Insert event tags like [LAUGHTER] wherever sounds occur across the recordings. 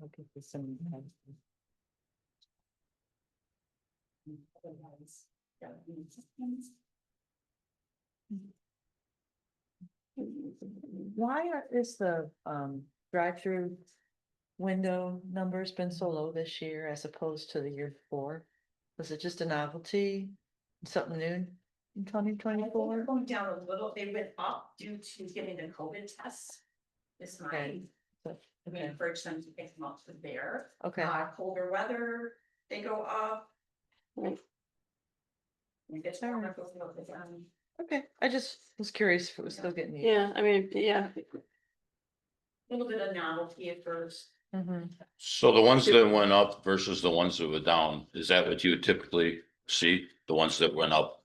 looking for some. Why are, is the, um, drive-through window numbers been so low this year as opposed to the year before? Was it just a novelty, something new in twenty twenty-four? Going down a little, they went up due to getting the COVID tests. This Okay. time, we Okay, encourage them to get them up to there. okay, Uh, colder weather, they go up. Right. We get to remember those little bit, um, okay. I just was curious if it was still getting used. Yeah, I mean, yeah, little bit of novelty at first. Mhm. So the ones that went up versus the ones that were down, is that what you typically see? The ones that went up?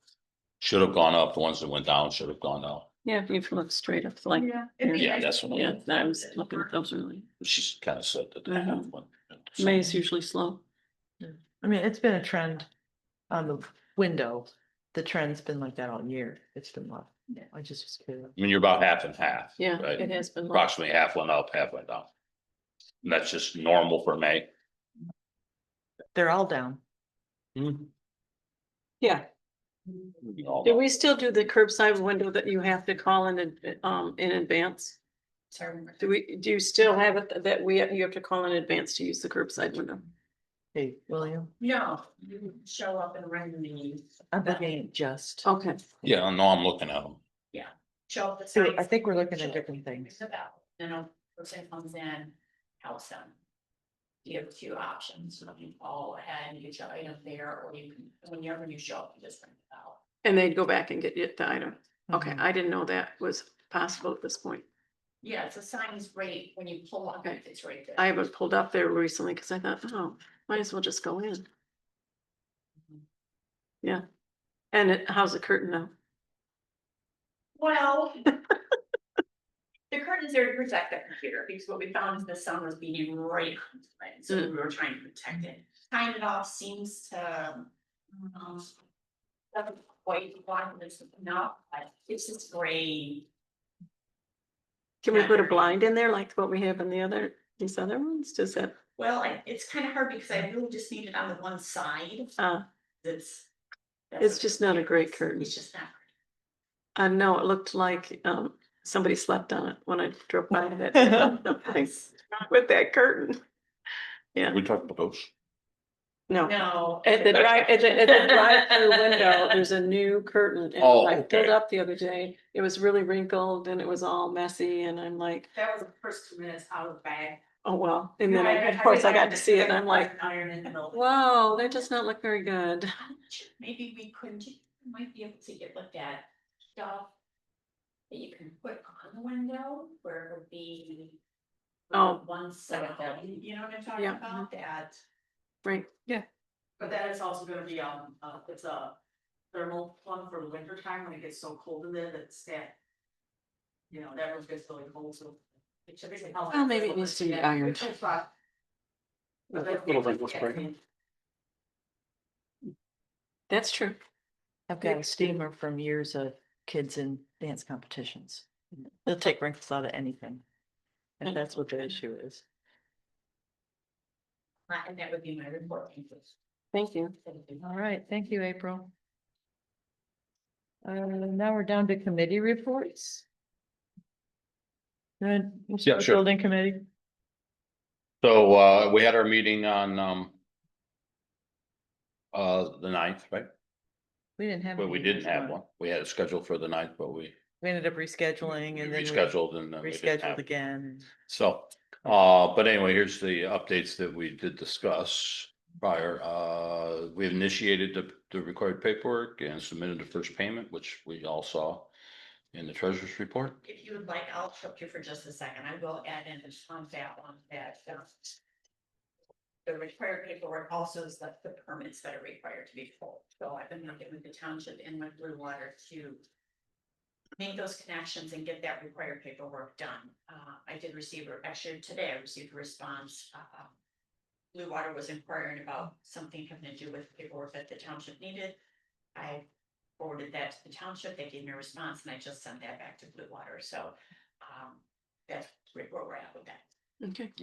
Should have gone up, the ones that went down should have gone down. yeah, if you look straight up like, It'd be Yeah, nice that's to what yeah, get I was looking at those early. She's kind of said that. Mhm. that. May is usually slow. I mean, it's been a trend on the window. The trend's been like that all year. It's been low. Yeah. I just was curious. I mean, you're about half and half. Yeah, Right? it has been. low. Approximately half went up, half went down. And that's just normal for May. They're all down. Yeah, do we still do the curbside window that you have to call in, ad- um, in advance? Sorry. Do we, do you still have it that we, you have to call in advance to use the curbside window? Hey, William, No, you show up and randomly I'm looking at just. Okay, Yeah, I know, I'm looking at them. show up. the So I signs, think we're looking show at up, different ring things. the bell, Then a person comes in, helps them. You have two options, so you call ahead, you show item there, or you can, whenever you show up, you just ring the bell. and they'd go back and get it, the item. Okay, Mhm. I didn't know that was possible at this point. Yeah, it's a sign is right when you pull up, Okay. it's right there. I haven't pulled up there recently because I thought, oh, might as well just go in. Mm-hmm. Yeah, and it, how's the curtain now? Well. The curtains there to protect that computer, because what we found is the sun was beating right on it, right? so we Mm. were trying to protect it. Time it off seems to, um. Doesn't quite want this enough, but it's just gray. Can we Yeah, put a there is. blind in there like what we have in the other, these other ones? Does that, Well, I- it's kind of hard because I really just need it on the one side, uh, that's. that's It's what- just not a great curtain. It's just not. I know it looked like, um, somebody slept on it when I drove [LAUGHS] by [LAUGHS] that. uh, thing With that curtain. Yeah, We talked about those. no. No. At the drive, at the, at the drive-through window, there's a new curtain. and Oh, I pulled okay. up the other day. It was really wrinkled and it was all messy and I'm like, That was the first two minutes out of the bag. oh, well. And then, I- of course, I got to see it and I'm like, Iron in the middle. whoa, that does not look very good. Maybe we couldn't, might be able to get looked at stuff. That you can put on the window where it would be. Oh. One side, you know what I'm talking Yeah. about, that, Right, But that is also gonna be, um, uh, it's a thermal plug for winter time when it gets so cold in there that that. You know, that room gets really cold, so. it should be- Well, maybe it needs to be ironed. It's not- but that's- Little wrinkles, right? that's true. I've got a steamer from years of kids in dance competitions. They'll take wrinkles out of anything. If that's what the issue is. and that would be my report. thank you. Thank you. All right, thank you, April. Uh, now we're down to committee reports. Good. Yeah, sure. Building committee, So, uh, we had our meeting on, um. Uh, the ninth, right? we didn't have. a But we meeting didn't this have month. one. We had it scheduled for the ninth, but we We ended up we rescheduling and then. we rescheduled and then we didn't Rescheduled have. it. again. So, uh, but anyway, here's the updates that we did discuss prior. Uh, we initiated the, the required paperwork and submitted the first payment, which we all saw in the treasurer's report. If you would like, I'll interrupt you for just a second. I will add in this on that one that. um, The required paperwork also is the, the permits that are required to be pulled. So I've been working with the township and with Blue Water to. Make those connections and get that required paperwork done. Uh, I did receive, a- actually today I received a response, uh. Blue Water was inquiring about something having to do with paperwork that the township needed. I forwarded that to the township, they gave me a response, and I just sent that back to Blue Water, so, um, that's where we're at with that. Okay.